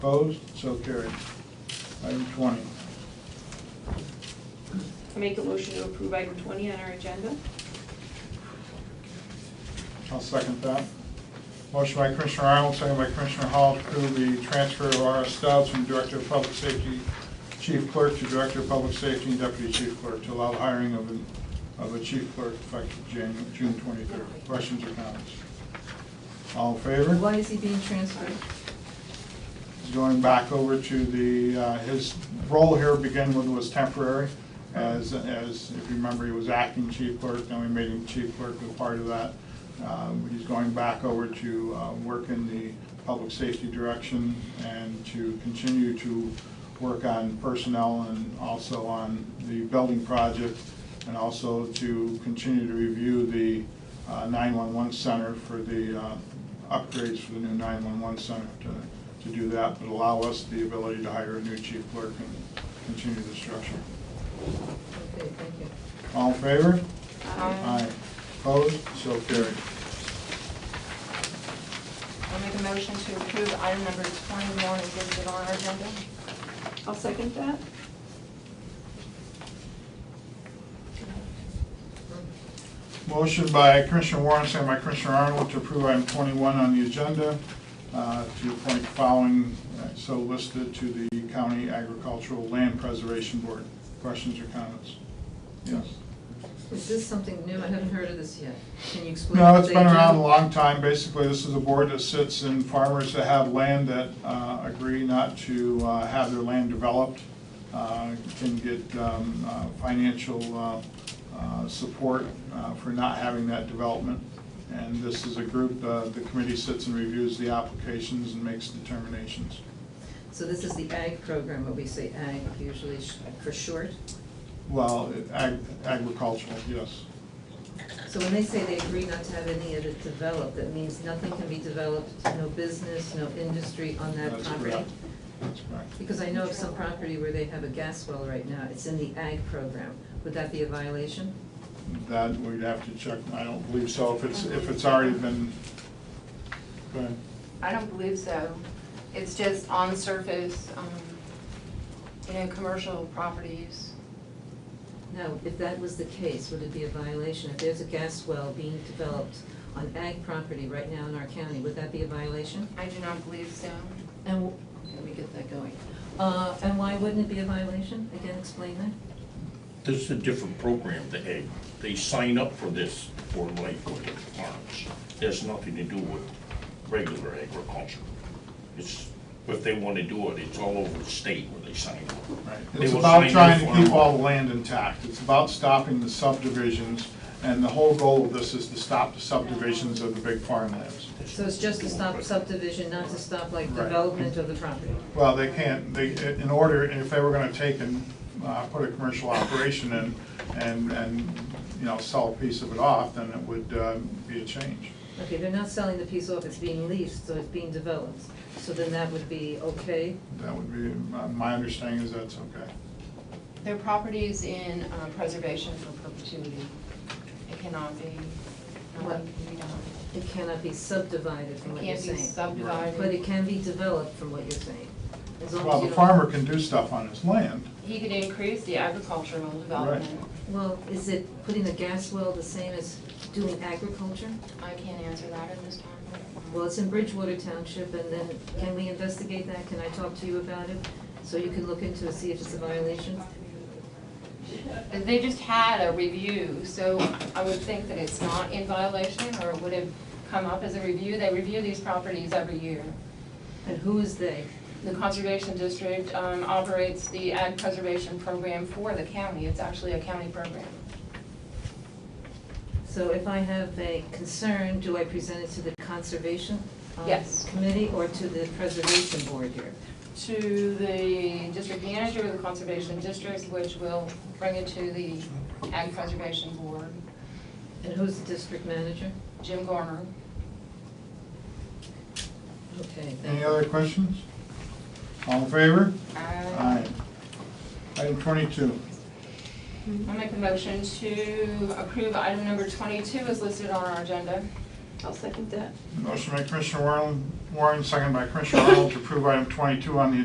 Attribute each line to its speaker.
Speaker 1: Opposed? So carried. Item 20.
Speaker 2: I make a motion to approve item 20 on our agenda.
Speaker 1: I'll second that. Motion by Commissioner Arnold, second by Commissioner Hall to approve the transfer of R.S. Stubbs from Director of Public Safety, Chief Clerk to Director of Public Safety and Deputy Chief Clerk to allow the hiring of a, of a chief clerk effective Jan, June twenty-third. Questions or comments? All in favor?
Speaker 3: Why is he being transferred?
Speaker 1: He's Going back over to the, uh, his role here began with was temporary, as, as, if you remember, he was acting chief clerk, then we made him chief clerk as part of that. Um, He's going back over to uh, work in the public safety direction and to continue to work on personnel and also on the building project, and also to continue to review the uh, 911 center for the uh, upgrades for the new 911 center to to do that, but allow us the ability to hire a new chief clerk and continue the structure.
Speaker 3: Okay, thank you.
Speaker 1: All in favor?
Speaker 2: Aye.
Speaker 1: Opposed? So carried.
Speaker 4: I'll make a motion to approve item number 21 is listed on our agenda.
Speaker 2: I'll second that.
Speaker 1: Motion by Commissioner Warren, second by Commissioner Arnold to approve item 21 on the agenda uh, to appoint the following, uh, so listed to the County Agricultural Land Preservation Board. Questions or comments? Yes.
Speaker 3: Is this something new? I haven't heard of this yet. Can you explain?
Speaker 1: No,
Speaker 3: what
Speaker 1: it's
Speaker 3: they
Speaker 1: been around a
Speaker 3: do?
Speaker 1: long time. Basically, this is a board that sits in farmers that have land that uh, agree not to uh, have their land developed, uh, can get um, uh, financial uh, uh, support uh, for not having that development. And this is a group, uh, the committee sits and reviews the applications and makes determinations.
Speaker 3: So this is the ag program, what we say ag usually sh- for short.
Speaker 1: Well, ag- agricultural, yes.
Speaker 3: So when they say they agree not to have any of it developed, that means nothing can be developed, no business, no industry on that
Speaker 1: That's
Speaker 3: property?
Speaker 1: correct. That's correct.
Speaker 3: Because I know of some property where they have a gas well right now. It's in the ag program. Would that be a violation?
Speaker 1: That we'd have to check, I don't believe so, if it's, if it's already been, go ahead.
Speaker 4: I don't believe so. It's just on surface, um, you know, commercial properties.
Speaker 3: No, if that was the case, would it be a violation? If there's a gas well being developed on ag property right now in our county, would that be a violation?
Speaker 4: I do not believe so.
Speaker 3: And, let me get that going. Uh, and why wouldn't it be a violation? Again, explain that.
Speaker 5: This is a different program, the egg. They sign up for this for livestock farms. It has nothing to do with regular agriculture. It's, if they want to do it, it's all over the state where they sign up.
Speaker 1: Right.
Speaker 5: They
Speaker 1: It's
Speaker 5: will
Speaker 1: about
Speaker 5: sign
Speaker 1: trying
Speaker 5: off
Speaker 1: to
Speaker 5: on
Speaker 1: keep
Speaker 5: them.
Speaker 1: all the land intact. It's about stopping the subdivisions, and the whole goal of this is to stop the subdivisions of the big farmlands.
Speaker 3: So it's just to stop subdivision, not to stop like
Speaker 1: Right.
Speaker 3: development of the property.
Speaker 1: Well, they can't, they, in order, if they were gonna take and, uh, put a commercial operation in and, and, you know, sell a piece of it off, then it would, uh, be a change.
Speaker 3: Okay, they're not selling the piece off, it's being leased, so it's being developed. So then that would be okay?
Speaker 1: That would be, my- my understanding is that's okay.
Speaker 4: Their property's in uh, preservation for perpetuity. It cannot be,
Speaker 3: What?
Speaker 4: um, you know,
Speaker 3: It cannot be subdivided from
Speaker 4: it
Speaker 3: what you're
Speaker 4: can't be
Speaker 3: saying.
Speaker 4: subdivided.
Speaker 3: But it can be developed from what you're saying. As long as
Speaker 1: Well,
Speaker 3: you
Speaker 1: the
Speaker 3: don't-
Speaker 1: farmer can do stuff on his land.
Speaker 4: He could increase the agricultural development.
Speaker 3: Well, is it putting a gas well the same as doing agriculture?
Speaker 4: I can't answer that at this time.
Speaker 3: Well, it's in Bridgewater Township, and then can we investigate that? Can I talk to you about it? So you can look into it, see if it's a violation?
Speaker 4: They just had a review, so I would think that it's not in violation, or it would have come up as a review. They review these properties every year.
Speaker 3: And who is they?
Speaker 4: The Conservation District um, operates the ag preservation program for the county. It's actually a county program.
Speaker 3: So if I have a concern, do I present it to the Conservation um,
Speaker 4: Yes.
Speaker 3: Committee or to the Preservation Board here?
Speaker 4: To the district manager of the Conservation District, which will bring it to the ag preservation board,
Speaker 3: And who's the district manager?
Speaker 4: Jim Garner.
Speaker 3: Okay, thank
Speaker 1: Any
Speaker 3: you.
Speaker 1: other questions? All in favor?
Speaker 4: I
Speaker 1: Aye. Item twenty-two.
Speaker 4: I make a motion to approve item number 22 as listed on our agenda.
Speaker 2: I'll second that.
Speaker 1: Motion by Commissioner Warren, Warren, second by Commissioner Arnold, to approve item twenty-two on the